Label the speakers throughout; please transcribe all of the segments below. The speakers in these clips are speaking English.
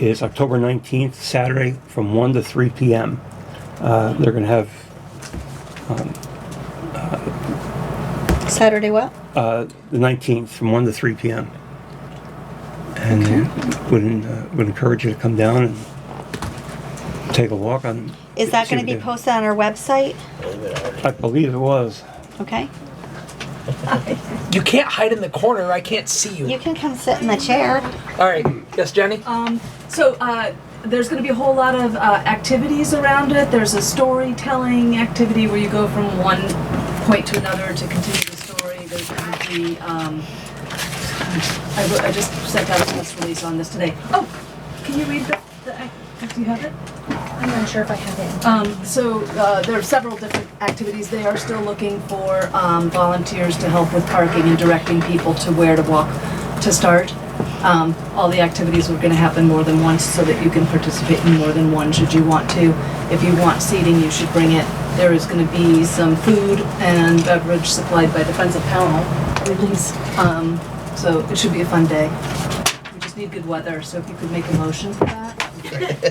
Speaker 1: is October 19th, Saturday, from 1 to 3 p.m. Uh, They're going to have
Speaker 2: Saturday what?
Speaker 1: uh, the 19th from 1 to 3 p.m. And would, uh, would encourage you to come down and take a walk on.
Speaker 2: Is that
Speaker 1: see
Speaker 2: gonna
Speaker 1: what
Speaker 2: be
Speaker 1: they-
Speaker 2: posted on our website?
Speaker 1: I believe it was.
Speaker 2: Okay.
Speaker 3: You can't hide in the corner. I can't see you.
Speaker 2: You can come sit in the chair.
Speaker 3: All right. Yes, Jenny.
Speaker 4: So uh, there's going to be a whole lot of uh, activities around it. There's a storytelling activity where you go from one point to another to continue the story. There's going to be. Um, I, wrote- I just sent out a press release on this today. Oh, can you read the? the ac- do you have it?
Speaker 5: I'm not sure if I have it.
Speaker 4: Um, so uh, there are several different activities. They are still looking for um, volunteers to help with parking and directing people to where to walk to start. Um, all the activities are going to happen more than once so that you can participate in more than one should you want to. If you want seating, you should bring it. There is going to be some food and beverage supplied by Defensive Panel, release. Um, so it should be a fun day. We just need good weather, so if you could make a motion for that.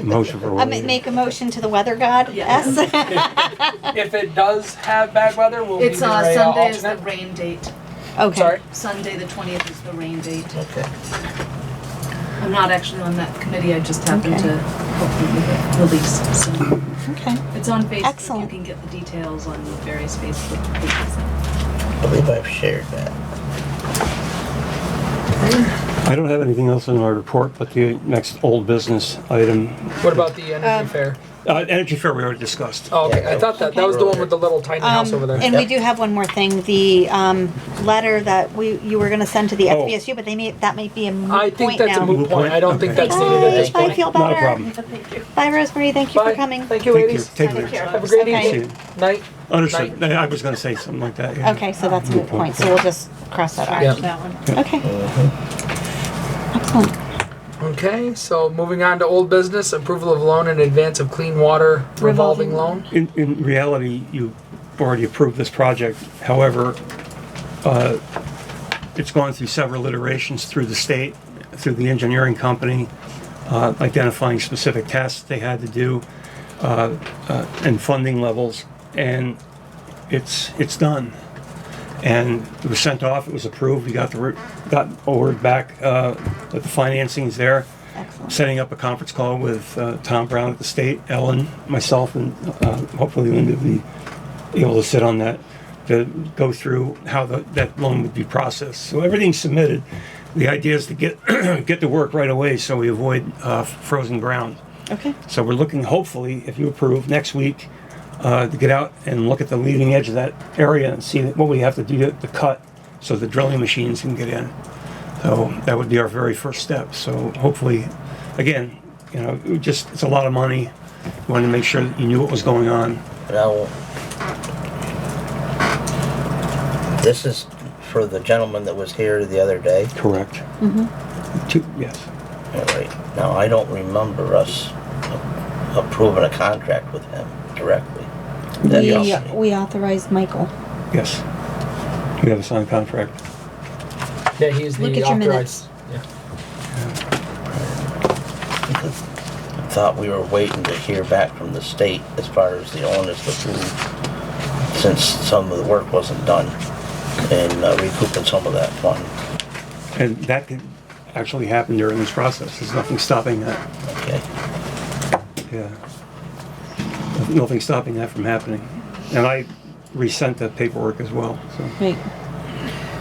Speaker 1: Motion for
Speaker 2: I
Speaker 1: what?
Speaker 2: ma- make a motion to the weather god.
Speaker 4: Yeah.
Speaker 2: Yes.
Speaker 3: If it does have bad weather, we'll
Speaker 4: It's
Speaker 3: be your
Speaker 4: uh,
Speaker 3: uh,
Speaker 4: Sunday is the
Speaker 3: alternate.
Speaker 4: rain date.
Speaker 2: Okay.
Speaker 3: Sorry.
Speaker 4: Sunday, the twentieth is the rain date.
Speaker 3: Okay.
Speaker 4: I'm not actually on that committee, I just happened
Speaker 2: Okay.
Speaker 4: to hopefully release, so.
Speaker 2: Okay.
Speaker 4: It's on Facebook, you
Speaker 2: Excellent.
Speaker 4: can get the details on the various Facebook pages.
Speaker 6: I believe I've shared that.
Speaker 1: I don't have anything else in my report, but the next old business item,
Speaker 3: What about the energy fair?
Speaker 1: uh, Energy Fair we already discussed.
Speaker 3: Oh, okay.
Speaker 6: yeah,
Speaker 3: I thought that that was the one with the little tiny house over there.
Speaker 2: Um, And we do have one more thing, the, um, letter that we, you were gonna send to the
Speaker 1: Oh.
Speaker 2: FBSU, but they may, that may be a moot
Speaker 3: I think
Speaker 2: point
Speaker 3: that's
Speaker 2: now.
Speaker 3: a moot point. I don't think
Speaker 1: Okay.
Speaker 3: that's needed at this
Speaker 2: Bye, I
Speaker 3: point.
Speaker 2: feel
Speaker 1: Not a
Speaker 2: better.
Speaker 1: problem.
Speaker 2: Bye, Rosemary, thank you for
Speaker 3: Bye.
Speaker 2: coming.
Speaker 3: Thank you,
Speaker 1: Thank you.
Speaker 3: ladies.
Speaker 1: Take care.
Speaker 3: Have a great
Speaker 2: Okay.
Speaker 3: evening. Night.
Speaker 1: Understood. I was going to say something like that. yeah.
Speaker 2: Okay, so that's a moot point, so we'll just cross that
Speaker 3: Yeah.
Speaker 2: out.
Speaker 5: That one.
Speaker 2: Okay. Excellent.
Speaker 3: Okay. So moving on to old business, approval of loan in advance of clean water revolving,
Speaker 2: Revolving.
Speaker 3: loan.
Speaker 1: In, in reality, you already approved this project, however, uh, it's gone through several iterations through the state, through the engineering company, uh, identifying specific tests they had to do, uh, uh, and funding levels, and it's, it's done. And it was sent off, it was approved, we got the, re- got a word back, uh, that the financing's there setting up a conference call with uh, Tom Brown at the state, Ellen, myself, and uh, hopefully Linda will be able to sit on that to go through how the, that loan would be processed. So everything's submitted. The idea is to get get to work right away so we avoid uh, frozen ground.
Speaker 2: Okay.
Speaker 1: So we're looking, hopefully, if you approve, next week uh, to get out and look at the leading edge of that area and see what we have to do to, to cut so the drilling machines can get in. So that would be our very first step. So hopefully, again, you know, it just it's a lot of money. We wanted to make sure that you knew what was going on.
Speaker 6: Now, this is for the gentleman that was here the other day.
Speaker 1: Correct. Mm-hmm. Two, yes.
Speaker 6: All right. Now, I don't remember us approving a contract with him directly. That
Speaker 2: We,
Speaker 6: company.
Speaker 2: we authorized Michael.
Speaker 1: Yes. We have a signed contract.
Speaker 3: Yeah, he's the
Speaker 2: Look at your
Speaker 3: authorized. Yeah.
Speaker 6: Thought we were waiting to hear back from the state as far as the owners of the pool, since some of the work wasn't done, and uh, recouping some of that fund.
Speaker 1: And that could actually happen during this process. There's nothing stopping that.
Speaker 6: Okay.
Speaker 1: Yeah. Nothing stopping that from happening. And I resent that paperwork as well, so.
Speaker 7: Right.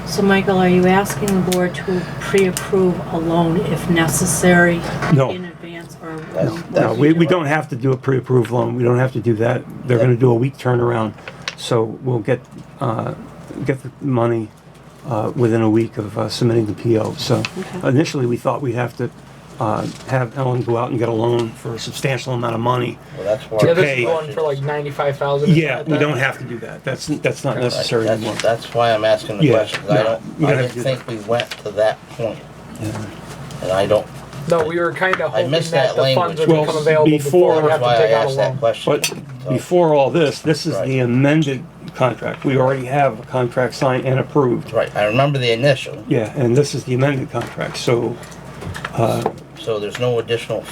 Speaker 7: So, Michael, are you asking the board to pre-approve a loan if necessary?
Speaker 1: No.
Speaker 7: In advance or?
Speaker 6: That's-
Speaker 1: No, we, we don't have to do a pre-approved loan. We don't have to do that. They're gonna do a week turnaround. So we'll get, uh, get the money, uh, within a week of uh, submitting the PO. So initially, we thought we'd have to, uh, have Ellen go out and get a loan for a substantial amount of money.
Speaker 6: Well, that's why.
Speaker 3: Yeah, this
Speaker 1: Okay.
Speaker 3: is going for like ninety-five thousand.
Speaker 1: Yeah, we don't have to do that. That's, that's not
Speaker 6: Right,
Speaker 1: necessary
Speaker 6: that's-
Speaker 1: anymore.
Speaker 6: That's why I'm asking the
Speaker 1: Yeah,
Speaker 6: question, 'cause I
Speaker 1: no,
Speaker 6: don't,
Speaker 1: we
Speaker 6: I
Speaker 1: gotta do
Speaker 6: didn't
Speaker 1: that.
Speaker 6: think we went to that point. And I don't,
Speaker 3: No, we were kind of hoping
Speaker 6: missed
Speaker 3: that
Speaker 6: that
Speaker 3: the funds
Speaker 6: language.
Speaker 3: would
Speaker 1: Well,
Speaker 3: become available before we
Speaker 1: before-
Speaker 3: have
Speaker 6: that's
Speaker 3: to
Speaker 6: why I
Speaker 3: take out a
Speaker 6: asked that
Speaker 3: loan.
Speaker 6: question.
Speaker 1: But
Speaker 6: So,
Speaker 1: before all this, this is the
Speaker 6: Right.
Speaker 1: amended contract. We already have a contract signed and approved.
Speaker 6: Right, I remember the initial,
Speaker 1: Yeah, and this is the amended contract, so
Speaker 6: so there's no additional